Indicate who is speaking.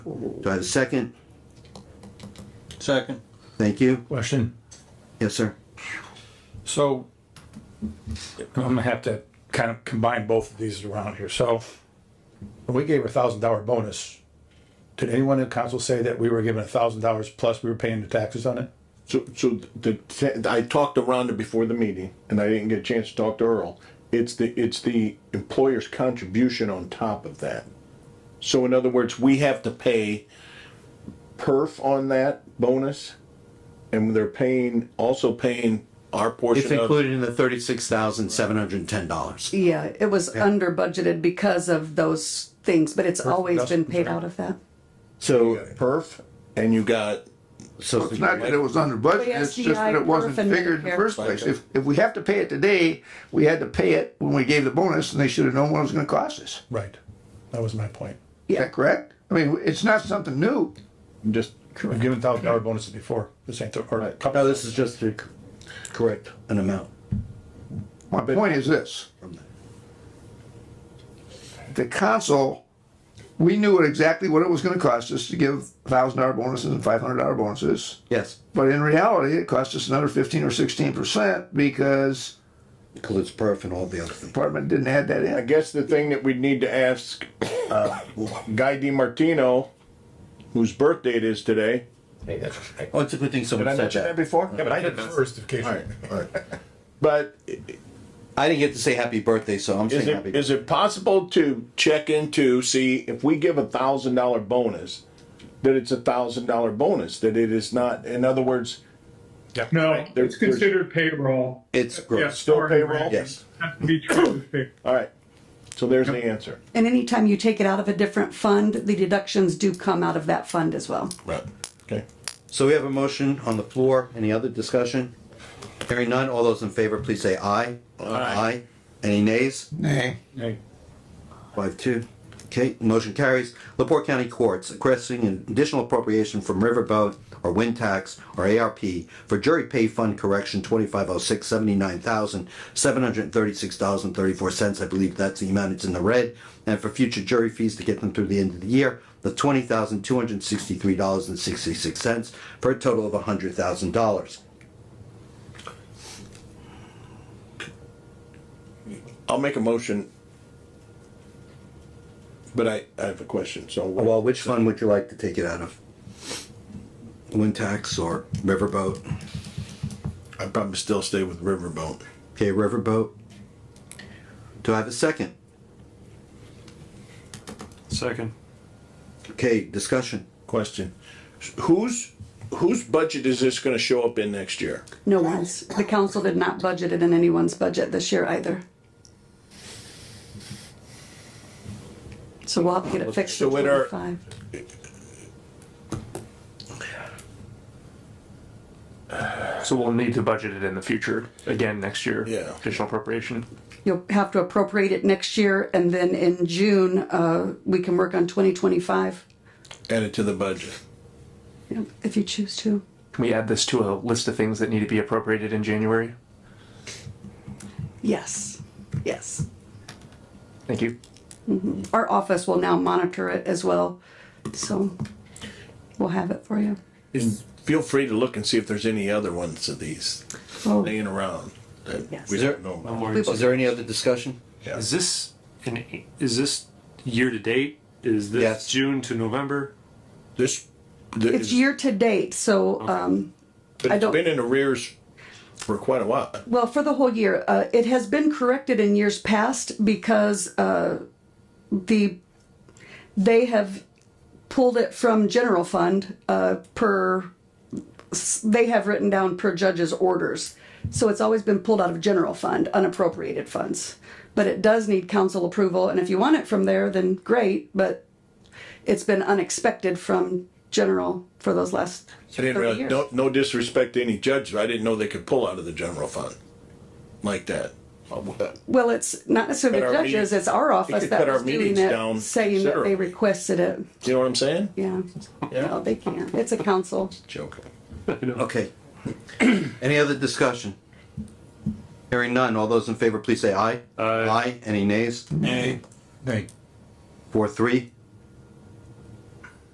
Speaker 1: Do I have a second?
Speaker 2: Second.
Speaker 1: Thank you.
Speaker 3: Question.
Speaker 1: Yes, sir.
Speaker 3: So I'm gonna have to kind of combine both of these around here. So we gave a thousand dollar bonus. Did anyone in council say that we were given a thousand dollars plus we were paying the taxes on it?
Speaker 4: So, so the, te- I talked to Rhonda before the meeting and I didn't get a chance to talk to Earl. It's the, it's the employer's contribution on top of that. So in other words, we have to pay perf on that bonus and they're paying, also paying our
Speaker 1: It's
Speaker 4: portion of.
Speaker 1: included in the thirty-six thousand seven hundred and ten dollars.
Speaker 5: Yeah, it was under budgeted because of those things, but it's always been paid out of that.
Speaker 4: So perf and you got,
Speaker 1: So
Speaker 6: It's not that it was under budget,
Speaker 5: Well, yeah,
Speaker 6: it's just that
Speaker 5: CI
Speaker 6: it wasn't
Speaker 5: perf and
Speaker 6: figured in the
Speaker 5: Medicare.
Speaker 6: first place. If, if we have to pay it today, we had to pay it when we gave the bonus, and they should have known what it was gonna cost us.
Speaker 3: Right. That was my point.
Speaker 6: Is that correct? I mean, it's not something new.
Speaker 4: just,
Speaker 3: We've given thousand dollar bonuses before. This ain't the, or a couple.
Speaker 1: no, this is just a-
Speaker 4: correct.
Speaker 1: an amount.
Speaker 6: My point is this. The council, we knew what- exactly what it was gonna cost us to give thousand dollar bonuses and five hundred dollar bonuses.
Speaker 1: Yes,
Speaker 6: But in reality, it cost us another fifteen or sixteen percent because
Speaker 1: includes perf and all the other
Speaker 6: the
Speaker 1: things.
Speaker 6: department didn't add that
Speaker 4: I
Speaker 6: in.
Speaker 4: guess the thing that we'd need to ask, uh, Guy DiMartino, whose birthday it is today.
Speaker 1: Oh, it's a good thing someone
Speaker 4: Did I
Speaker 1: said
Speaker 4: mention that
Speaker 1: that.
Speaker 4: before?
Speaker 7: Yeah, but I did first, if case.
Speaker 4: But
Speaker 1: I didn't get to say happy birthday, so I'm saying
Speaker 4: Is
Speaker 1: happy.
Speaker 4: it, is it possible to check into, see if we give a thousand dollar bonus, that it's a thousand dollar bonus, that it is not, in other words,
Speaker 8: No,
Speaker 4: There-
Speaker 8: it's considered payroll.
Speaker 1: It's gross.
Speaker 4: Still payroll?
Speaker 1: Yes.
Speaker 8: Has to be treated as payroll.
Speaker 4: all right, so there's the answer.
Speaker 5: And anytime you take it out of a different fund, the deductions do come out of that fund as well.
Speaker 1: Right.
Speaker 4: Okay.
Speaker 1: So we have a motion on the floor. Any other discussion? Hearing none, all those in favor, please say aye. Aye. Any nays?
Speaker 6: Nay.
Speaker 3: Hey,
Speaker 1: Five two. Okay, motion carries. Laporte County Courts requesting an additional appropriation from Riverboat or Wind Tax or ARP for jury pay fund correction twenty-five oh six seventy-nine thousand, seven hundred and thirty-six dollars and thirty-four cents. I believe that's the amount it's in the red. And for future jury fees to get them through the end of the year, the twenty thousand, two hundred and sixty-three dollars and sixty-six cents for a total of a hundred thousand dollars.
Speaker 4: I'll make a motion. But I, I have a question, so. what-
Speaker 1: Well, which fund would you like to take it out of? Wind Tax or Riverboat?
Speaker 4: I'd probably still stay with Riverboat.
Speaker 1: Okay, Riverboat. Do I have a second?
Speaker 7: Second.
Speaker 1: Okay, discussion.
Speaker 4: Question, whose, whose budget is this gonna show up in next year?
Speaker 5: No one's, the council did not budget it in anyone's budget this year either. So we'll have to get it fixed
Speaker 4: So
Speaker 5: in
Speaker 4: what are-
Speaker 5: twenty-five.
Speaker 7: So we'll need to budget it in the future, again, next year.
Speaker 4: Yeah.
Speaker 7: Additional appropriation.
Speaker 5: You'll have to appropriate it next year and then in June, uh, we can work on twenty twenty-five
Speaker 4: Add it to the budget.
Speaker 5: if you choose to.
Speaker 7: Can we add this to a list of things that need to be appropriated in January?
Speaker 5: Yes, yes.
Speaker 7: Thank you.
Speaker 5: our office will now monitor it as well. So we'll have it for you.
Speaker 4: And feel free to look and see if there's any other ones of these
Speaker 5: Oh,
Speaker 4: laying around that
Speaker 5: Yes.
Speaker 4: we don't know. about.
Speaker 1: Is there any other discussion?
Speaker 9: Is this an, is this year to date? Is this
Speaker 1: Yes.
Speaker 9: June to November?
Speaker 4: This, this
Speaker 5: It's year to date, so, um,
Speaker 4: but
Speaker 5: I
Speaker 4: it's
Speaker 5: don't-
Speaker 4: been in arrears for quite a while.
Speaker 5: well, for the whole year, uh, it has been corrected in years past because, uh, the, they have pulled it from general fund, uh, per, s- they have written down per judge's orders. So it's always been pulled out of general fund, unappropriated funds. But it does need council approval, and if you want it from there, then great, but it's been unexpected from general for those last
Speaker 4: I didn't
Speaker 5: thirty
Speaker 4: realize,
Speaker 5: years.
Speaker 4: no, no disrespect to any judges, I didn't know they could pull out of the general fund like that.
Speaker 5: Well, it's not necessarily
Speaker 4: Cut
Speaker 5: the
Speaker 4: our
Speaker 5: judges,
Speaker 4: meetings-
Speaker 5: it's our office
Speaker 4: could
Speaker 5: that
Speaker 4: cut our
Speaker 5: was doing
Speaker 4: meetings down
Speaker 5: it, saying that
Speaker 4: considerably.
Speaker 5: they requested it,
Speaker 4: You know what I'm saying?
Speaker 5: yeah. No, they can't, it's a council.
Speaker 4: Joking.
Speaker 1: Okay. Any other discussion? Hearing none, all those in favor, please say aye. Aye. Aye, any nays?
Speaker 3: hey.
Speaker 1: Four, three.